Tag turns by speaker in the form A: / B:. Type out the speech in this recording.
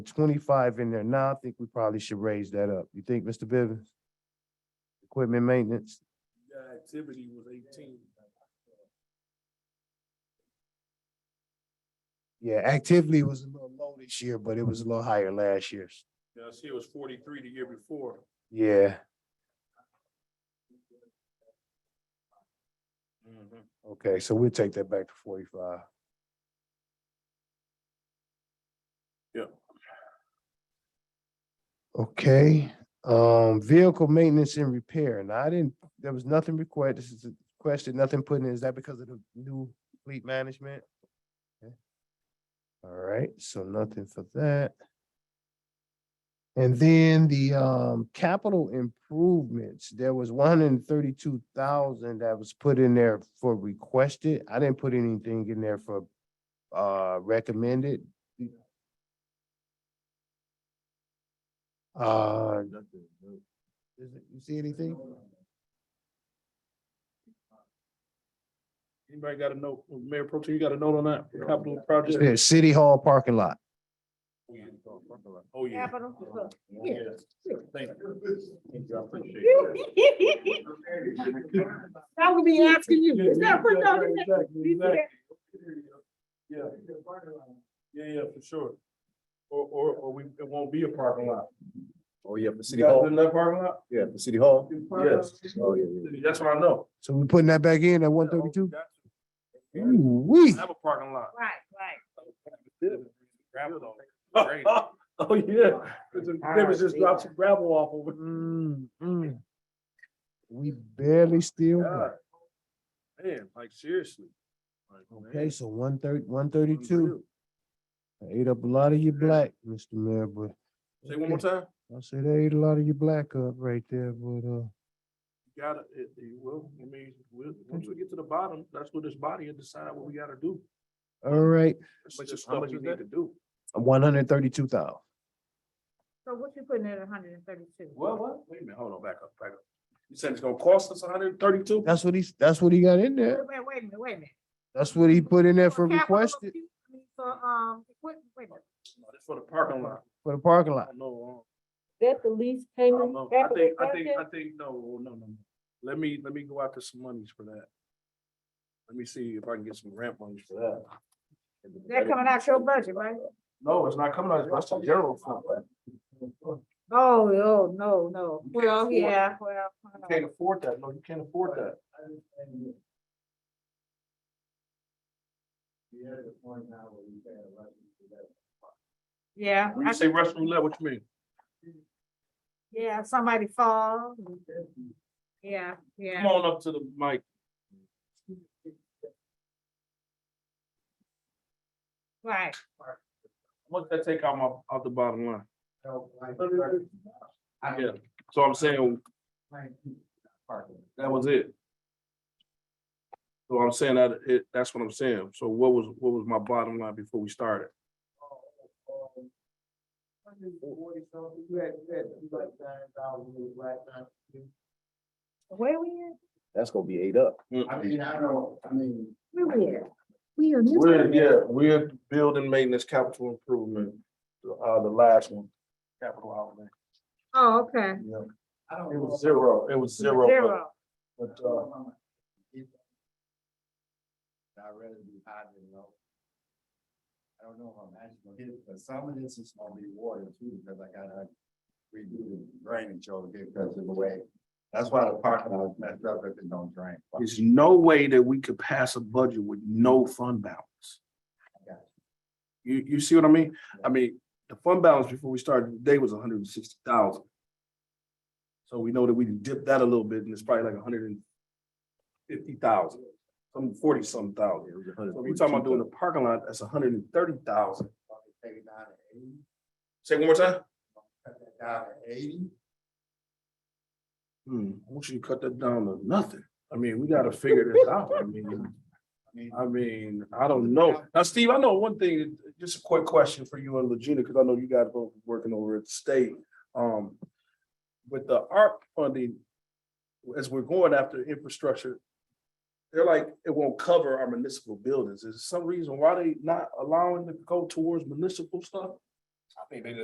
A: twenty-five in there now, I think we probably should raise that up. You think, Mr. Bivins? Equipment maintenance,
B: The activity was eighteen.
A: yeah, activity was a little low this year, but it was a little higher last year's.
B: Yeah, I see it was forty-three the year before.
A: Yeah,
B: Mm-hmm.
A: okay, so we'll take that back to forty-five.
B: Yeah.
A: Okay, um, vehicle maintenance and repair. Now, I didn't, there was nothing required. This is a question, nothing put in. Is that because of the new fleet management? Okay. All right, so nothing for that. And then the, um, capital improvements, there was one hundred and thirty-two thousand that was put in there for requested. I didn't put anything in there for, uh, recommended. Uh, is it- you see anything?
B: Anybody got a note, Mayor Pro Tem, you got a note on that capital
A: Just
B: project?
A: there, City Hall parking lot.
B: Oh, yeah.
C: Capital.
B: Yeah. Thank you. Thank you, I appreciate it.
C: I would be asking you. Is that what y'all
B: Exactly,
C: think?
B: exactly, exactly. Yeah, yeah, yeah, for sure. Or, or, or we, it won't be a parking lot.
D: Oh, yeah, for
B: You
D: City
B: guys
D: Hall,
B: in that parking lot?
D: yeah, for City Hall.
B: Yes.
D: Oh, yeah, yeah.
B: That's what I know.
A: So we're putting that back in at one thirty-two?
B: Ooh,
A: Ooh-wee.
B: Have a parking lot.
C: Right, right.
B: Gravel. Oh, yeah. They was just dropped some gravel off over.
A: Mm, mm. We barely still, got-
B: God. Man, like seriously. Like,
A: okay,
B: man,
A: so one thirty, one
B: unreal.
A: thirty-two, ate up a lot of your black, Mr. Mayor, but.
B: Say one more
A: okay.
B: time.
A: I said they ate a lot of your black up right there, but, uh,
B: You gotta, it, it will, I mean, we'll, once we get to the bottom, that's what this body will decide what we gotta do.
A: all right,
B: That's just stuff we need to do.
A: one hundred thirty-two thousand.
C: So what you putting at hundred and thirty-two?
B: Well, what? Wait a minute, hold on, back up, back up. You said it's gonna cost us hundred and thirty-two?
A: That's what he's, that's what he got in
C: Wait,
A: there.
C: wait, wait a minute, wait a minute.
A: That's what he put in there for
C: capital
A: requested
C: improvement, I mean, For, um, equipment, wait a minute.
B: That's for the parking lot.
A: for the parking
B: I
A: lot.
B: don't know.
E: That the lease
B: uh, I
E: payment?
B: don't know. I think, I think, I think, no, no, no, no. Let me, let me go out to some monies for that. Let me see if I can get some grant monies for that.
C: That coming out your budget, right?
B: No, it's not coming out, that's the general fund. You
C: Oh, oh, no, no.
B: You can't
C: Well,
B: afford-
C: yeah, well. I know.
B: can't afford that, no, you can't afford that.
C: Yeah,
B: When
C: I-
B: you say restroom level, what you mean?
C: yeah, somebody fall. Yeah,
B: Come
C: yeah.
B: on up to the mic.
C: Right,
B: What's that take out my, out the bottom line? Yeah, so I'm saying. That was it. So I'm saying that, it, that's what I'm saying. So what was, what was my bottom line before we started?
C: where we at?
D: That's gonna be eight up.
B: Mm.
A: mean, I know, I mean.
C: Where we at? We are. new.
B: We're, yeah, we're building maintenance capital improvement, uh, the last one, capital outlay.
C: Oh, okay.
B: Yeah. It was zero, it was zero. but-
C: Zero.
B: But, uh,
F: I'd rather be high than low. I don't know how I'm actually gonna hit it, but some of this is gonna be water too, because I gotta redo the drainage over here because of the way. That's why the parking lot is messed up if it don't drain.
B: there's no way that we could pass a budget with no fund balance.
F: Got
B: You, you see what I mean? I mean, the fund balance before we started today was hundred and sixty thousand. So we know that we can dip that a little bit and it's probably like hundred and fifty thousand, some forty some thousand. So we're talking about doing the parking lot, that's hundred and thirty thousand.
F: Take it down to eighty,
B: Say one more time?
F: cut that down to eighty.
B: Hmm, I want you to cut that down to nothing. I mean, we gotta figure this out. I mean. I mean, I don't know. Now, Steve, I know one thing, just a quick question for you and Regina, because I know you guys both working over at the state. Um, with the ARP funding, as we're going after infrastructure, they're like, it won't cover our municipal buildings. Is there some reason why they not allowing to go towards municipal stuff? I think they